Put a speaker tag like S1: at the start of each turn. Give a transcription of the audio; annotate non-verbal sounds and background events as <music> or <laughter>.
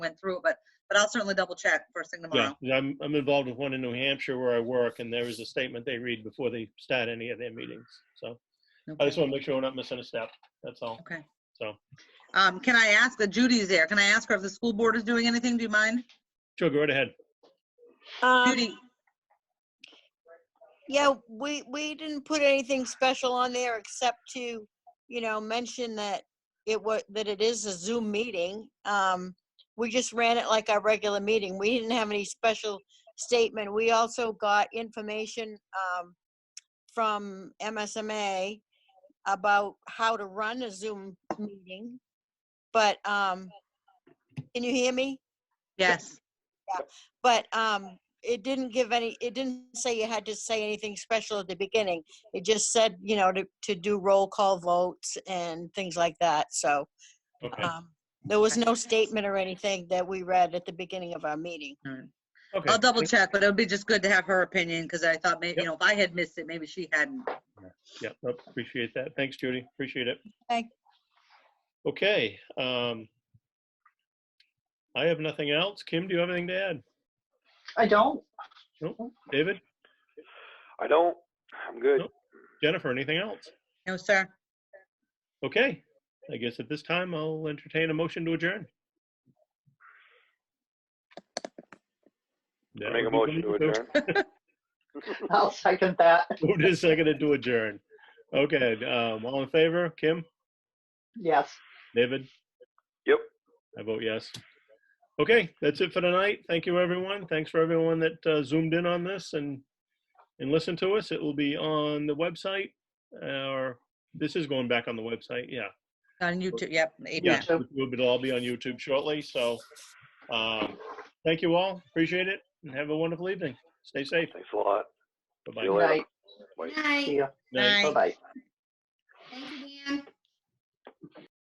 S1: went through it, but, but I'll certainly double check first thing
S2: Yeah,
S1: tomorrow.
S2: I'm, I'm involved with one in New Hampshire where I work, and there is a statement they read before they start any of their meetings. So I just
S1: Okay.
S2: want to make sure we're not missing a step. That's all.
S1: Okay.
S2: So,
S1: Um, can I ask, uh, Judy's there, can I ask her if the school board is doing anything? Do you mind?
S2: sure, go right ahead.
S3: Um,
S1: Judy,
S3: yeah, we, we didn't put anything special on there except to, you know, mention that it was, that it is a Zoom meeting. Um, we just ran it like our regular meeting. We didn't have any special statement. We also got information, um, from MSMA about how to run a Zoom meeting. But, um, can you hear me?
S1: yes.
S3: But um, it didn't give any, it didn't say you had to say anything special at the beginning. It just said, you know, to, to do roll call votes and things like that. So
S2: Okay.
S1: Uh,
S3: um, there was no statement or anything that we read at the beginning of our meeting.
S2: Okay.
S1: I'll double check, but it would be just good to have her opinion, because I thought maybe, you know, if I had missed it, maybe she hadn't.
S2: Yeah, nope, appreciate that. Thanks, Judy. Appreciate it.
S3: Okay.
S2: Okay. um, I have nothing else. Kim, do you have anything to add?
S4: I don't.
S2: David?
S5: I don't. I'm good.
S2: Nope. Jennifer, anything else?
S1: No, sir.
S2: Okay. I guess at this time, I'll entertain a motion to adjourn. That
S5: Make a
S2: would be
S5: motion to
S2: good. <laughs>
S5: adjourn.
S4: I'll second that.
S2: Moved and seconded to adjourn. Okay, um, all in favor? Kim?
S4: Yes.
S2: David?
S5: Yep.
S2: I vote yes. Okay, that's it for tonight. Thank you, everyone. Thanks for everyone that uh, zoomed in on this and, and listened to us. It will be on the website, uh, or this is going back on the website, yeah.
S1: On YouTube, yep,
S2: Yeah,
S1: amen.
S4: YouTube.
S2: it'll be- it'll all be on YouTube shortly, so, um, thank you all. Appreciate it, and have a wonderful evening. Stay <laughs> safe.
S5: Thanks a lot.
S2: Bye-bye.
S5: See you
S4: Good
S5: later.
S4: night.
S5: Bye.
S4: See ya.
S1: Bye.
S4: Bye-bye.